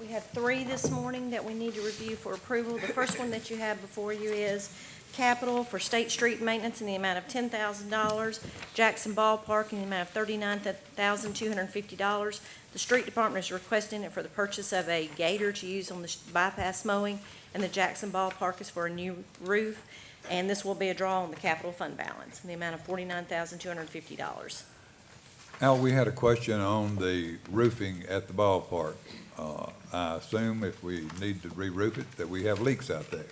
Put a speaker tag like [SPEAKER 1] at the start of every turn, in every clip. [SPEAKER 1] We have three this morning that we need to review for approval. The first one that you have before you is capital for State Street Maintenance in the amount of ten thousand dollars, Jackson Ballpark in the amount of thirty-nine thousand two hundred and fifty dollars. The street department is requesting it for the purchase of a gator to use on the bypass mowing, and the Jackson Ballpark is for a new roof. And this will be a draw on the capital fund balance in the amount of forty-nine thousand two hundred and fifty dollars.
[SPEAKER 2] Al, we had a question on the roofing at the ballpark. Uh, I assume if we need to re-roof it, that we have leaks out there.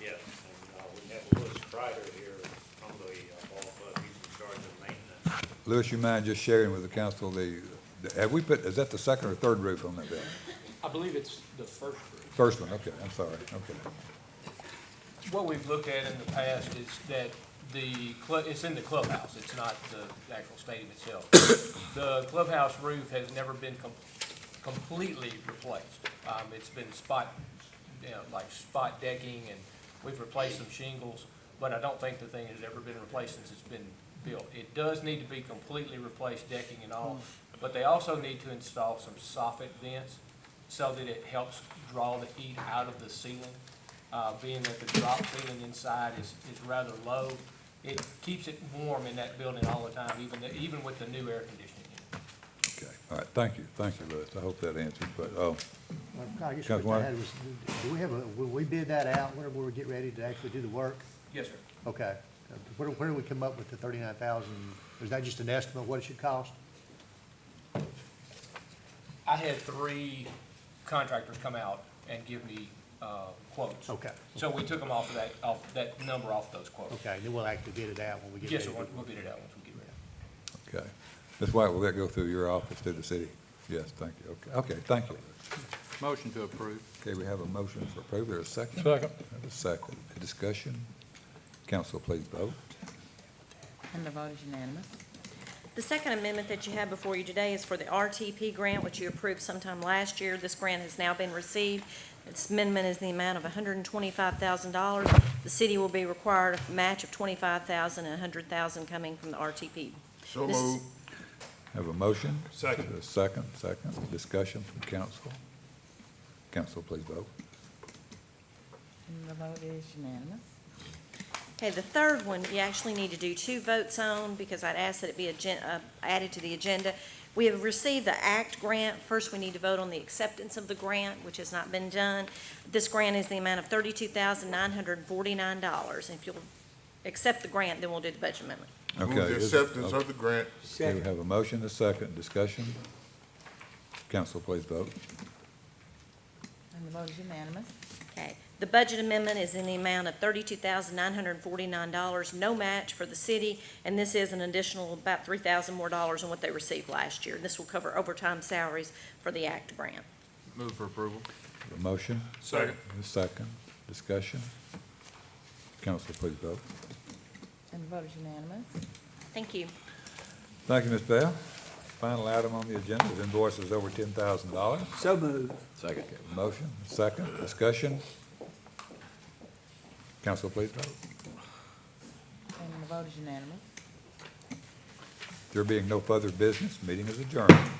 [SPEAKER 3] Yes, and uh, we have Louis Kreider here from the uh, ball club, he's in charge of maintenance.
[SPEAKER 2] Lewis, you mind just sharing with the council the, have we put, is that the second or third roof on that building?
[SPEAKER 4] I believe it's the first group.
[SPEAKER 2] First one, okay, I'm sorry, okay.
[SPEAKER 4] What we've looked at in the past is that the, clu- it's in the clubhouse, it's not the actual stadium itself. The clubhouse roof has never been com- completely replaced. Um, It's been spot, you know, like spot decking, and we've replaced some shingles, but I don't think the thing has ever been replaced since it's been built. It does need to be completely replaced decking and all, but they also need to install some soffit vents so that it helps draw the heat out of the ceiling. Uh, being that the drop ceiling inside is, is rather low, it keeps it warm in that building all the time, even, the- even with the new air conditioning. in.
[SPEAKER 2] Okay, all right, thank you, thank you, Lewis, I hope that answers, but, oh,
[SPEAKER 5] I guess what
[SPEAKER 2] Councilwoman?
[SPEAKER 5] I had was, do we have, a will we bid that out whenever we get ready to actually do the work?
[SPEAKER 4] Yes, sir.
[SPEAKER 5] Okay. Uh, Where, where do we come up with the thirty-nine thousand? Is that just an estimate of what it should cost?
[SPEAKER 4] I had three contractors come out and give me, uh, quotes.
[SPEAKER 5] Okay.
[SPEAKER 4] So we took them off of that, off that number off those quotes.
[SPEAKER 5] Okay, and then we'll actually bid it out when we get
[SPEAKER 4] Yes,
[SPEAKER 5] ready.
[SPEAKER 4] sir,
[SPEAKER 5] to-
[SPEAKER 4] we'll we'll bid it out once we get ready.
[SPEAKER 2] okay. Ms. White, will that go through your office to the city? Yes, thank you, okay, okay, thank you.
[SPEAKER 6] Motion to approve.
[SPEAKER 2] Okay, we have a motion for approval, There's a second? Second. A second, discussion, council please vote.
[SPEAKER 7] And the vote is unanimous.
[SPEAKER 1] The second amendment that you have before you today is for the RTP grant, which you approved sometime last year. This grant has now been received. This amendment is the amount of $125,000. The city will be required a match of $25,000 and $100,000 coming from the RTP.
[SPEAKER 6] So
[SPEAKER 1] This is-
[SPEAKER 6] moved.
[SPEAKER 2] Have a motion?
[SPEAKER 3] Second.
[SPEAKER 2] A second, second, discussion from council. Council, please vote.
[SPEAKER 7] And the vote is unanimous.
[SPEAKER 1] Okay, the third one, you actually need to do two votes on, because I'd ask that it be agen- uh, added to the agenda. We have received the ACT grant. First, we need to vote on the acceptance of the grant, which has not been done. This grant is the amount of thirty-two thousand nine hundred and forty-nine dollars. If you'll accept the grant, then we'll do the budget amendment.
[SPEAKER 2] Okay.
[SPEAKER 6] Move the
[SPEAKER 2] is-
[SPEAKER 6] acceptance of the grant.
[SPEAKER 2] Okay, we have a motion, a second, discussion. Council, please vote.
[SPEAKER 7] And the vote is unanimous.
[SPEAKER 1] Okay, the budget amendment is in the amount of thirty-two thousand nine hundred and forty-nine dollars, no match for the city, and this is an additional about three thousand more dollars than what they received last year. This will cover overtime salaries for the ACT grant.
[SPEAKER 6] Move for approval.
[SPEAKER 2] A motion?
[SPEAKER 3] Second.
[SPEAKER 2] A second, discussion. Council, please vote.
[SPEAKER 7] And the vote is unanimous.
[SPEAKER 1] Thank you.
[SPEAKER 2] Thank you, Ms. Bell. Final item on the agenda is invoices over ten thousand dollars. So moved. Second. Motion, second, discussion. Council, please vote.
[SPEAKER 7] And the vote is unanimous.
[SPEAKER 2] There being no further business, meeting is adjourned.